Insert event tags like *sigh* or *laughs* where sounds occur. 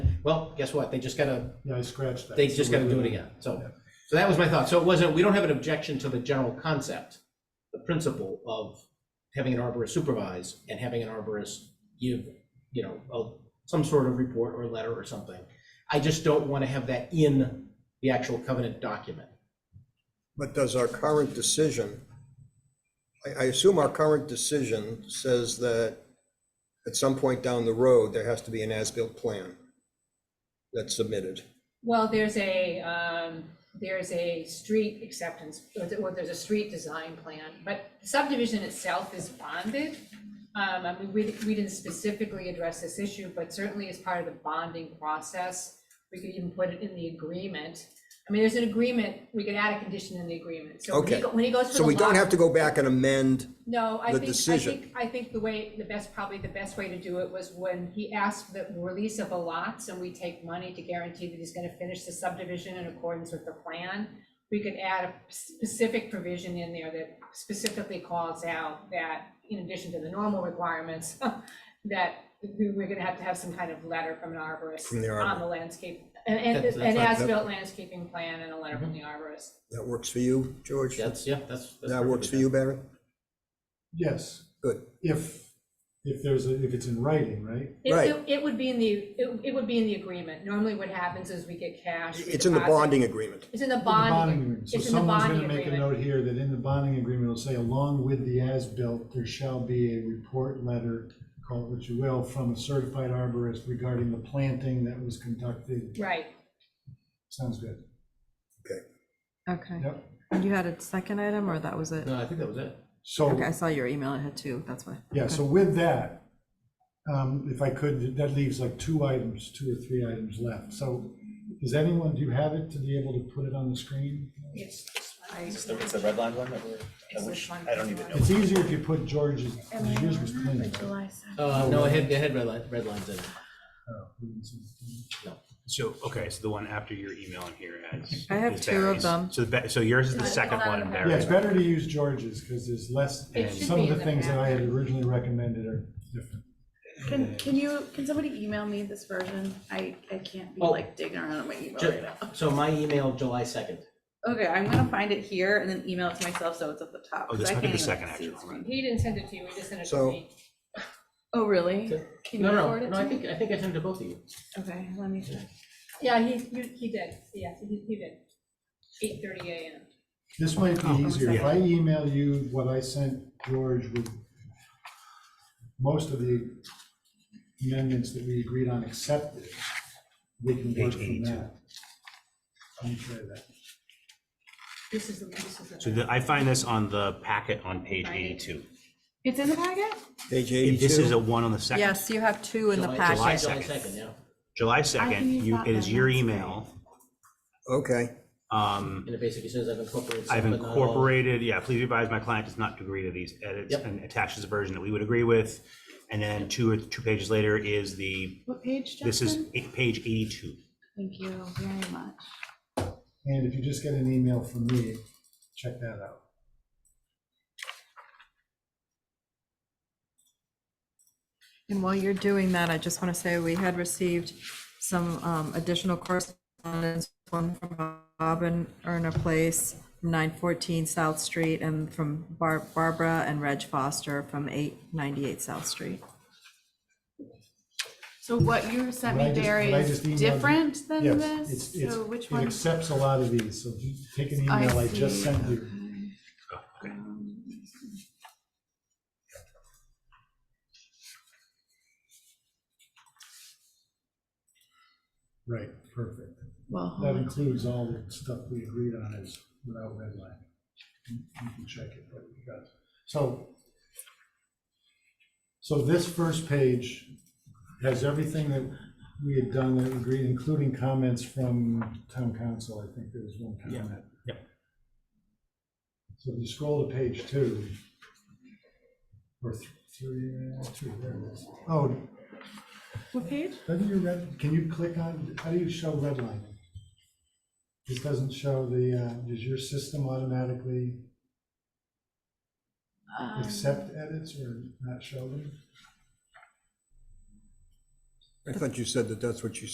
Well, guess what? They just gotta, Yeah, I scratched that. they just So gotta we're do it good. again. So, so that was my thought. So it wasn't, we don't have an objection to the general concept, the principle of having an arborist supervise and having an arborist give, you know, a- some sort of report or letter or something. I just don't want to have that in the actual covenant document. But does our current decision, I, I assume our current decision says that at some point down the road, there has to be an as-built plan that's submitted. Well, there's a, um, there's a street acceptance, or th- or there's a street design plan, but subdivision itself is bonded. Um, I mean, we, we didn't specifically address this issue, but certainly as part of the bonding process, we could even put it in the agreement. I mean, there's an agreement, we could add a condition in the agreement, so when he, Okay. go- when he goes for the So we don't lot- have to go back and amend, no, I the think, I decision. think, I think the way, the best, probably the best way to do it was when he asked for the release of the lots and we take money to guarantee that he's gonna finish the subdivision in accordance with the plan. We could add a specific provision in there that specifically calls out that in addition to the normal requirements, *laughs* that we- we're gonna have to have some kind of letter from an arborist From the on arborist. the landscape, and, and, That- that's an right, that- as-built landscaping plan and a letter from the arborist. that works for you, George? That's, yeah, that's. that's That works for perfectly you, Barry? Yes, Good. if, if there's, a if it's in writing, right? It- Right. It, it would be in the, it, it would be in the agreement. Normally what happens is we get cash. we It's in the deposit- bonding agreement. It's in the The bonding bonding. agreement. So It's in the someone's bonding gonna make a agreement. note here that in the bonding agreement, it'll say, along with the as-built, there shall be a report letter, call it what you will, from a certified arborist regarding the planting that was conducted. Right. Sounds good. Okay, Yep. and you had a second item, or that was it? good. No, I think that was it. So. Okay, I saw your email, I had two, that's why. Yeah, so with that, um, if I could, that leaves like two items, two or three items left. So does anyone, do you have it to be able to put it on the screen? It's this one. Is the, is the red line one that we're, It's I this wish, one, I don't this even one. know. It's easier if you put George's, 'cause yours was clean. Uh, no, it had, it had red line, red lines in it. So, okay, so the one after your email in here has. I have is two of Barry's. them. So, the ba- so yours is the It's second not one, on and the Yeah, Barry's. it's better to use George's because there's less, It and should some be of the in the things that I had packet. originally recommended are different. Can, can you, can somebody email me this version? I, I can't be Oh. like digging around in my email Ju- right now. So my email, July second. Okay, I'm gonna find it here and then email it to myself so it's at the top. Oh, 'cause this I might be can't the even second see actual the one. screen. He didn't send it to you, he just sent it to So- me. Oh, really? Okay. Can you No, no, forward it no, to I me? think, I think I sent it to both of you. Okay, let me check. Yeah, he, you, he did, yes, he, he did. Eight thirty AM. This might Oh, be easier. If yeah. I email you what I sent George with most of the amendments that we agreed on accepted, we can work from Page 82. that. Let me try that. This is the, this is the. So the, I find this on the packet on page Right. eighty-two. It's in the packet? Page If This is a eighty-two, one on the second. Yes, you have two in the July- July packet. July 2nd. second, yeah. July I can second, use you, that it is then, your that's great. email. okay. Um, And it basically says I've incorporated. some, I've but not all. incorporated, yeah, please advise my client does not agree to these edits Yep. and attaches a version that we would agree with. And then two, or two pages later is the, What page, Justin? this is eight- page eighty-two. Thank you very much. And if you just get an email from me, check that out. And while you're doing that, I just want to say we had received some um, additional correspondence, one from Bob and Erna Place, nine fourteen South Street, and from Bar- Barbara and Reg Foster from eight ninety-eight South Street. So what you sent What I me, just- Barry, what I is just emailed you- different than Yes, this? it's- it's- So which It one? accepts a lot of these, so if you take an email I just see, sent you. Okay. Right, perfect. Well, That hold on. includes all the stuff we agreed on is without redlining. You you can check it, but we got, so. So this first page has everything that we had done that agreed, including comments from town council. I think there was one comment. Yep. So if you scroll to page two. Or th- three, uh, two, there it is. Oh, what page? how do you red, can you click on, how do you show redlining? This doesn't show the, uh, does your system automatically Um, accept edits or not show them? I thought you said that that's what you